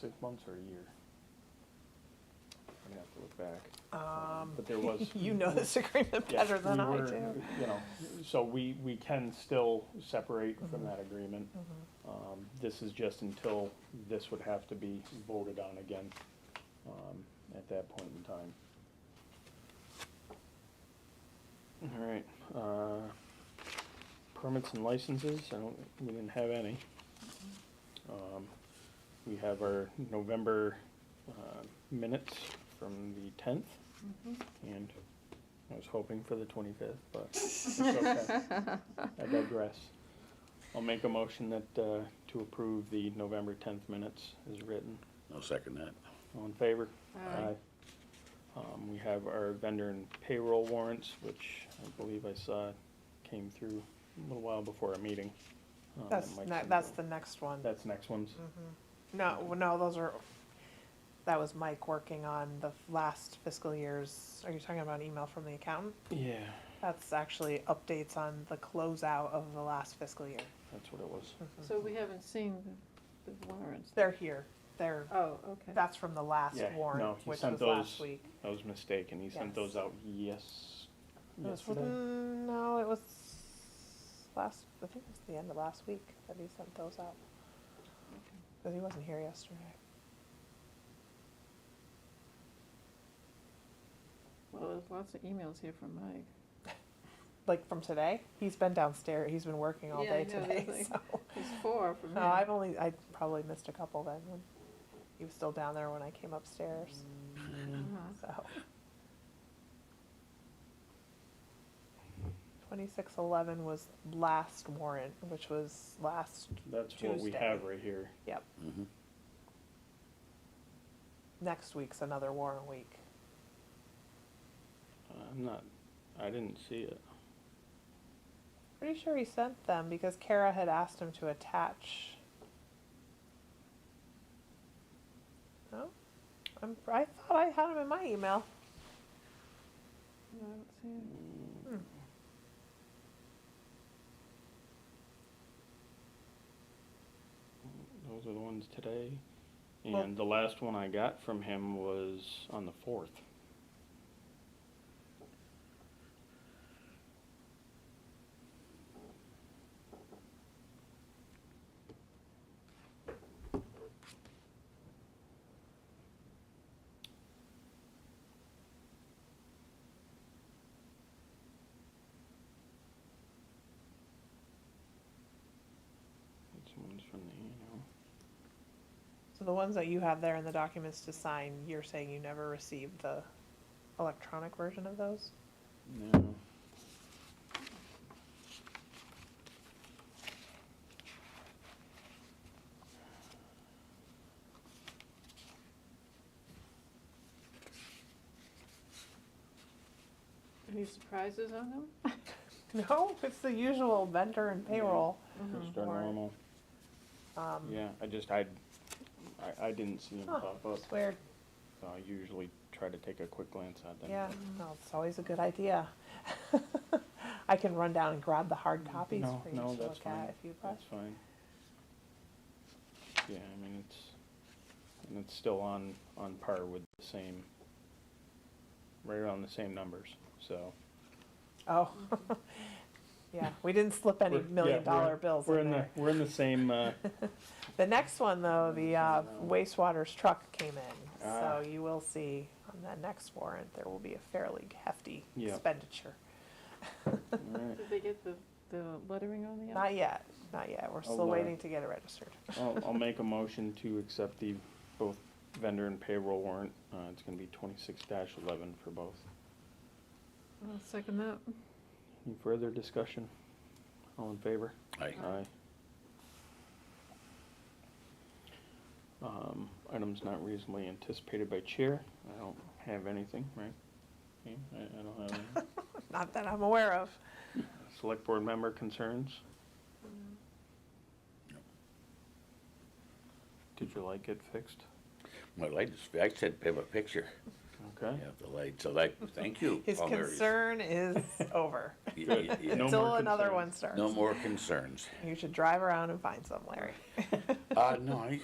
six months or a year? I'd have to look back. Um, But there was. you know this agreement Yeah, better than we I were, Oh, do. You know, so we, we can still separate Mm-hmm. from that agreement. Um, This is just until this would have to be voted on again, um, at that point in time. All right, uh, permits and licenses, I don't, we didn't have any. Mm-hmm. Um, We have our November, uh, minutes from the tenth, Mm-hmm. and I was hoping for the twenty-fifth, but it's okay. I digress. I'll make a motion that, uh, to approve the November tenth minutes as written. I'll second that. All in favor? Aye. Um, we have our vendor and payroll warrants, which I believe I saw came through a little while before our meeting. Um, that That's, might ne- come that's through. the next one. Mm-hmm. That's next one's. No, w- no, those are, that was Mike working on the f- last fiscal year's, are you talking about an email from the accountant? Yeah, That's actually updates on the closeout of the last fiscal year. Mm-hmm. that's what it was. So we haven't seen the- the warrants? They're here, they're, Oh, okay. that's from the last Yeah, no, warrant, he which sent was last those week. I was mistaken. He sent Yes. those out yes, It was- yesterday. mm, No, it was last, I think it was the end of last week that he sent those out. Cause he wasn't here yesterday. Well, there's lots of emails here from Mike. Like from today, he's been downstairs, he's been working all Yeah, I day know, there's today, like- "Mm." so. There's four from him. No, I've only, I probably missed a couple then, when he was still down there when I came upstairs, Uh-huh. so. Twenty-six eleven was last warrant, which was last, That's what we Tuesday. have right here. yep, Mhm. next week's another warrant week. I'm not, I didn't see it. Pretty sure he sent them because Kara had asked him to attach. No, I'm, I thought I had him in my email. No, I don't see it. Those are the ones today. And the last one I got from him was on the fourth. This one's from the annual. So the ones that you have there in the documents to sign, you're saying you never received the electronic version of those? No. Any surprises on them? No, it's the usual vendor and payroll. Just our Warrant. normal. Mm-hmm. Um, Yeah, I just, I, I, I didn't see him Huh, pop up. it's weird. So I usually try to take a quick glance at them. Yeah, no, it's always a good idea. I can run down and grab the hard copies Mm, No, for you to no, that's look fine. at if you'd like. That's fine. Yeah, I mean, it's, and it's still on, on par with the same, right around the same numbers, so. Oh, yeah, we didn't slip any We're- yeah, million dollar we're- bills We're in in the, there. we're in the same, uh, The next one, though, the uh, wastewater's truck came in, Ah. so you will see on that next warrant, there will be a fairly hefty Yeah. expenditure. alright. Did they get the, the lettering on the? Not yet, not yet, we're Oh, still wow. waiting to get it registered. I'll, I'll make a motion to accept the, both vendor and payroll warrant. Uh, it's gonna be twenty-six dash eleven for both. I'll second that. Any further discussion? All in favor? Aye. Aye. Um, items not reasonably anticipated by chair. I don't have anything, right? Yeah, I, I don't have any. Not that I'm aware of. Select board member concerns? Did your light get fixed? My light is, I said, have a picture. Okay. Yeah, the light, so that, thank you. His Paul Murray. concern is over, Y- y- yeah. No until more another concerns. one starts. No more concerns. You should drive around and find some, Larry. Uh, no, I,